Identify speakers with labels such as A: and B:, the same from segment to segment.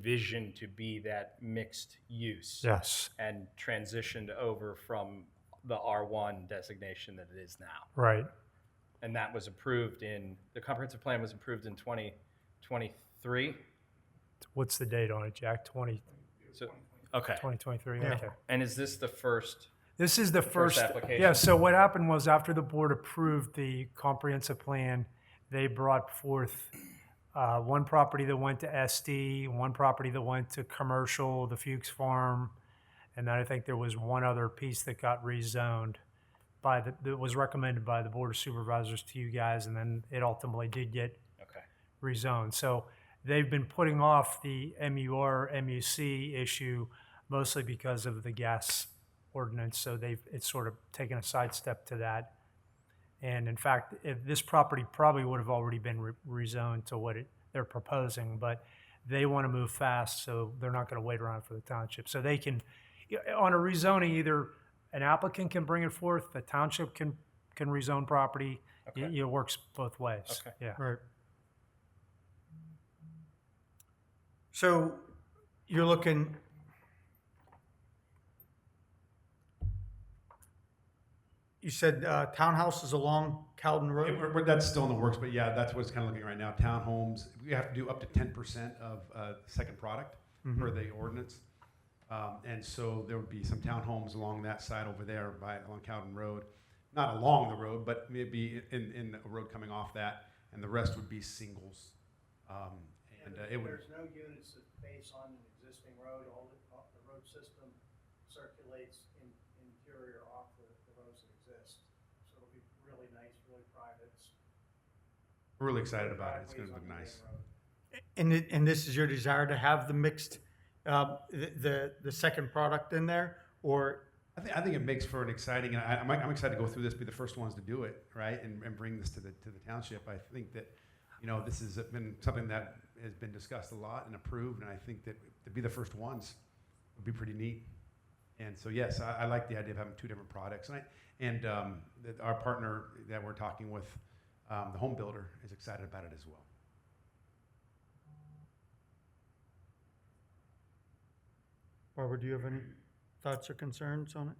A: envisioned to be that mixed use
B: Yes,
A: and transitioned over from the R1 designation that it is now.
B: right.
A: And that was approved in, the comprehensive plan was approved in 2023.
B: What's the date on it, Jack? 20,
A: So, okay.
B: 2023? Okay.
A: And is this the first?
B: This is the
A: first
B: first.
A: application.
B: Yeah, so what happened was after the board approved the comprehensive plan, they brought forth uh, one property that went to SD, one property that went to commercial, the Fuchs Farm, and then I think there was one other piece that got rezoned by the, that was recommended by the Board of Supervisors to you guys, and then it ultimately did get
A: Okay.
B: rezoned. So they've been putting off the MUR, MUC issue mostly because of the gas ordinance. So they've, it's sort of taken a sidestep to that. And in fact, if this property probably would have already been re- rezoned to what it, they're proposing, but they want to move fast, so they're not going to wait around for the township. So they can, yeah, on a rezoning, either an applicant can bring it forth, the township can, can rezone property.
A: Okay.
B: It, it works both ways.
A: Okay.
B: Yeah.
C: Right. So you're looking. You said uh, townhouses along Calden
D: It-
C: Road?
D: we're- we're- that's still in the works, but yeah, that's what's kind of looking right now. Townhomes, we have to do up to ten percent of uh, second product per the ordinance, um, and so there would be some townhomes along that side over there by along Cowden Road, not along the road, but maybe in in a road coming off that, and the rest would be singles, um, and uh, it would.
E: There's no units that face on an existing road, all the, all the road system circulates in, interior off the, the roads that exist. So it'll be really nice, really private. It's-
D: We're really excited about it. It's going to look
E: driveways on the main
D: nice.
E: road.
C: And, it- and this is your desire to have the mixed, uh, the, the, the second product in there? Or,
D: I think, I think it makes for an exciting, and I, I'm, I'm excited to go through this, be the first ones to do it, right, and, and bring this to the, to the township. I think that, you know, this has been something that has been discussed a lot and approved, and I think that to be the first ones would be pretty neat. And so, yes, I, I like the idea of having two different products, and I, and um, that our partner that we're talking with, um, the home builder, is excited about it as well.
C: Barbara, do you have any thoughts or concerns on it?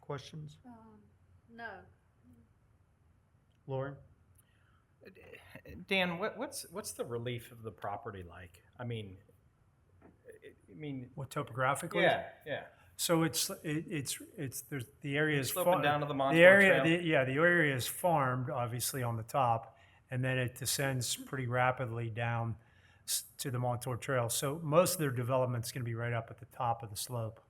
C: Questions?
F: Um, no.
C: Lauren?
A: Dan, what, what's what's the relief of the property like? I mean, it, I mean,
B: What topographically?
A: yeah, yeah.
B: So it's, it, it's, it's, there's, the area is.
A: Sloping
B: far-
A: down to the Montauk
B: area,
A: Trail.
B: the- Yeah, the area is farmed, obviously, on the top, and then it descends pretty rapidly down s- to the Montauk Trail. So most of their development's gonna be right up at the top of the slope.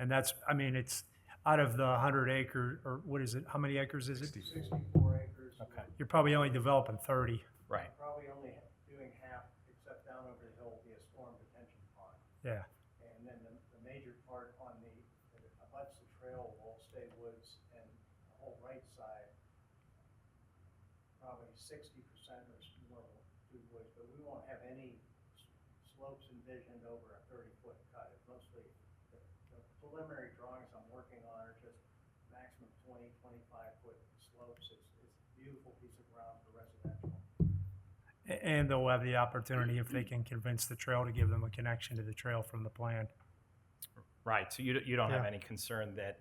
B: And that's, I mean, it's out of the hundred acre, or what is it, how many acres is it?
E: Sixty-four acres,
A: Okay.
B: You're probably only developing thirty.
A: Right.
E: probably only doing half, except down over the hill will be a storm detention pond.
B: Yeah,
E: And then the, the major part on the, that abuts the trail will stay woods and the whole right side, probably sixty percent or s- more will do woods, but we won't have any s- slopes envisioned over a thirty-foot cut. It's mostly, the the preliminary drawings I'm working on are just maximum 20, 25 foot slopes. It's, it's a beautiful piece of ground for residential.
B: A- and they'll have the opportunity if they can convince the trail to give them a connection to the trail from the plan.
A: Right. So you, don't- you don't have
C: Yeah.
A: any concern that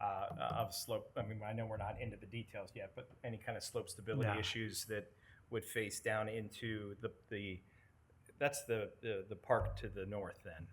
A: uh, of slope. I mean, I know we're not into the details yet, but any kind of slope stability
B: No.
A: issues that would face down into the the that's the the, the park to the north. Then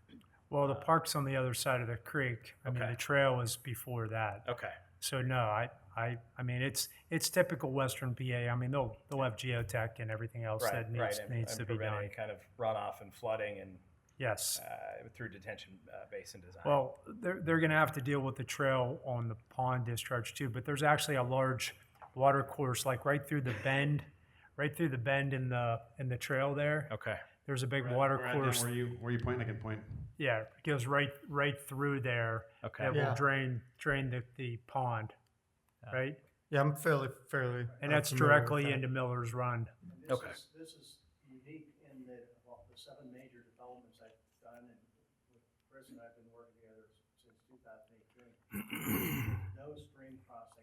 B: Well, the park's on the other side of the creek. I mean,
A: Okay.
B: the trail was before that.
A: okay.
B: So no, I, I, I mean, it's, it's typical Western PA. I mean, they'll, they'll have geotech and everything else
A: Right.
B: that
A: right.
B: needs,
A: and-
B: needs
A: and
B: to be
A: prevent
B: done.
A: any kind of runoff and flooding and
B: Yes.
A: uh, through detention uh, basin design.
B: Well, they're, they're going to have to deal with the trail on the pond discharge too, but there's actually a large water course, like right through the bend, right through the bend in the, in the trail there.
A: okay.
B: There's a big
D: Where-
B: water
D: where I am,
B: course.
D: Where you, where you point, I can point.
B: Yeah, it goes right, right through there.
A: Okay.
B: That will
C: Yeah.
B: drain, drain the, the pond, right?
C: Yeah, I'm fairly, fairly.
B: And
C: uh,
B: that's
C: familiar with
B: directly
C: that.
B: into Miller's Run.
E: And this
A: Okay.
E: is, this is unique in that of all the seven major developments I've done and with Chris and I've been working together since two thousand eighteen. No stream crossing